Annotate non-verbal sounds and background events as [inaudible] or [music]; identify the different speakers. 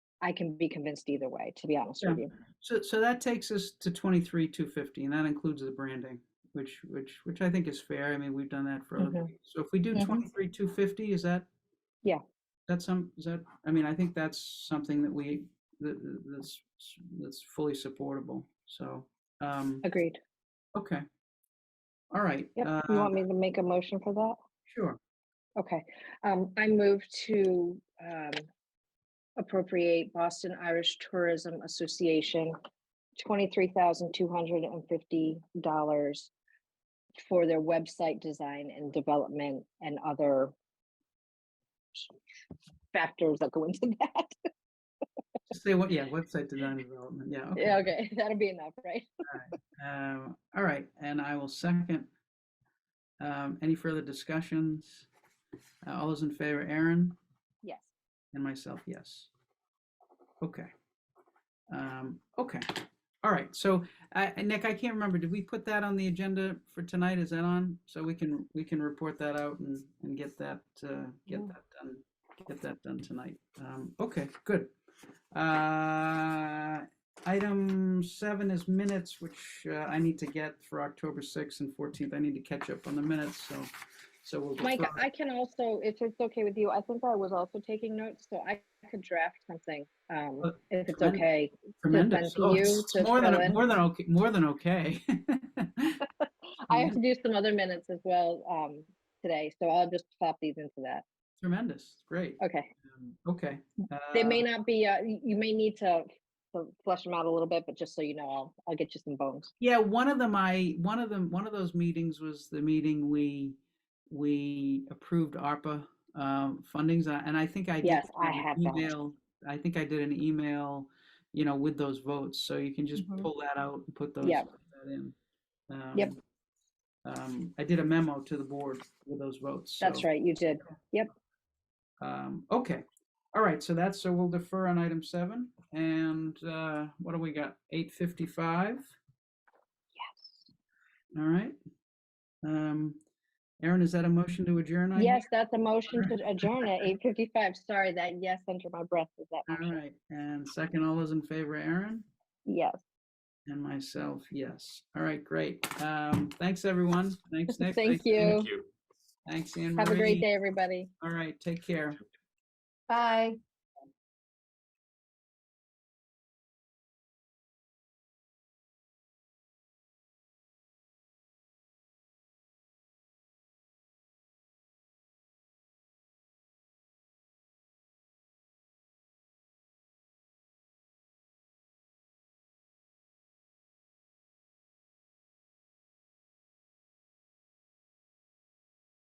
Speaker 1: I can be convinced either way, to be honest
Speaker 2: Yeah.
Speaker 1: with you.
Speaker 2: So, so that takes us to twenty-three, two fifty, and that includes the branding, which, which, which I think is fair. I mean, we've done that for other
Speaker 1: Mhm.
Speaker 2: things. So if we do
Speaker 1: Mhm.
Speaker 2: twenty-three, two fifty, is that?
Speaker 1: Yeah.
Speaker 2: That's some, is that, I mean, I think that's something that we, that, that's, that's fully supportable, so, um,
Speaker 1: Agreed.
Speaker 2: okay. All right.
Speaker 1: Yep. You
Speaker 2: uh,
Speaker 1: want me to make a motion for that?
Speaker 2: Sure.
Speaker 1: Okay, um, I move to, um, appropriate Boston Irish Tourism Association twenty-three thousand two hundred and fifty dollars for their website design and development and other factors that go into [laughs] that.
Speaker 2: Just Say what, yeah, website design and development,
Speaker 1: [laughs]
Speaker 2: yeah, okay.
Speaker 1: Yeah, okay, that'll be enough, right?
Speaker 2: Um, all right, and I will second. Um, any further discussions? Uh, all those in favor, Aaron
Speaker 1: Yes.
Speaker 2: and myself, yes. Okay. Um, okay. All right. So, uh, Nick, I can't remember. Did we put that on the agenda for tonight? Is that on? So we can we can report that out and and get that uh, get
Speaker 1: Yeah.
Speaker 2: that done get that done tonight. Um, okay. Good. Uh, Item seven is minutes, which uh, I need to get for October 6th and 14th. I need to catch up on the minutes, so, so we'll.
Speaker 1: Mike,
Speaker 2: defer-
Speaker 1: I can also, if it's okay with you, I think I was also taking notes, so I could draft something, um,
Speaker 2: Oh,
Speaker 1: if it's
Speaker 2: tremendous.
Speaker 1: okay.
Speaker 2: Tremendous.
Speaker 1: to
Speaker 2: Oh,
Speaker 1: you
Speaker 2: it's-
Speaker 1: to
Speaker 2: it's More
Speaker 1: fill
Speaker 2: than,
Speaker 1: in.
Speaker 2: more than okay, more than okay. [laughs]
Speaker 1: I have to do some other minutes as well um, today, so I'll just pop these into that.
Speaker 2: Tremendous, great.
Speaker 1: Okay.
Speaker 2: Um, Okay.
Speaker 1: They
Speaker 2: uh,
Speaker 1: may not be, uh, y- you may need to to flesh them out a little bit, but just so you know, I'll, I'll get you some bones.
Speaker 2: Yeah, one of them, I, one of them, one of those meetings was the meeting we, we approved ARPA um, fundings, uh, and I think I did.
Speaker 1: Yes, I
Speaker 2: an
Speaker 1: have that.
Speaker 2: email- I think I did an email, you know, with those votes, so you can just
Speaker 1: Mhm.
Speaker 2: pull that out and put those
Speaker 1: Yep.
Speaker 2: put that in.
Speaker 1: Yep.
Speaker 2: Um, um, I did a memo to the board with those votes.
Speaker 1: That's
Speaker 2: so,
Speaker 1: right, you did.
Speaker 2: um, Okay, all right, so that's, so we'll defer on item seven, and uh, what do we got? Eight fifty-five? All right. Um, Aaron, is that a motion to adjourn? I hear?
Speaker 1: Yes, that's a motion to adjourn at 8:55. Sorry, that yes under my breath was that
Speaker 2: All
Speaker 1: motion.
Speaker 2: right, and second, all those in favor, Aaron
Speaker 1: Yes.
Speaker 2: and myself, yes. All right, great. Um, thanks, everyone. Thanks,
Speaker 1: [laughs]
Speaker 2: Nick.
Speaker 1: Thank
Speaker 2: Thanks, Anne-
Speaker 1: you.
Speaker 3: Thank you.
Speaker 2: Thanks, Anne Marie.
Speaker 1: Have a great day, everybody.
Speaker 2: All right, take care.
Speaker 1: Bye.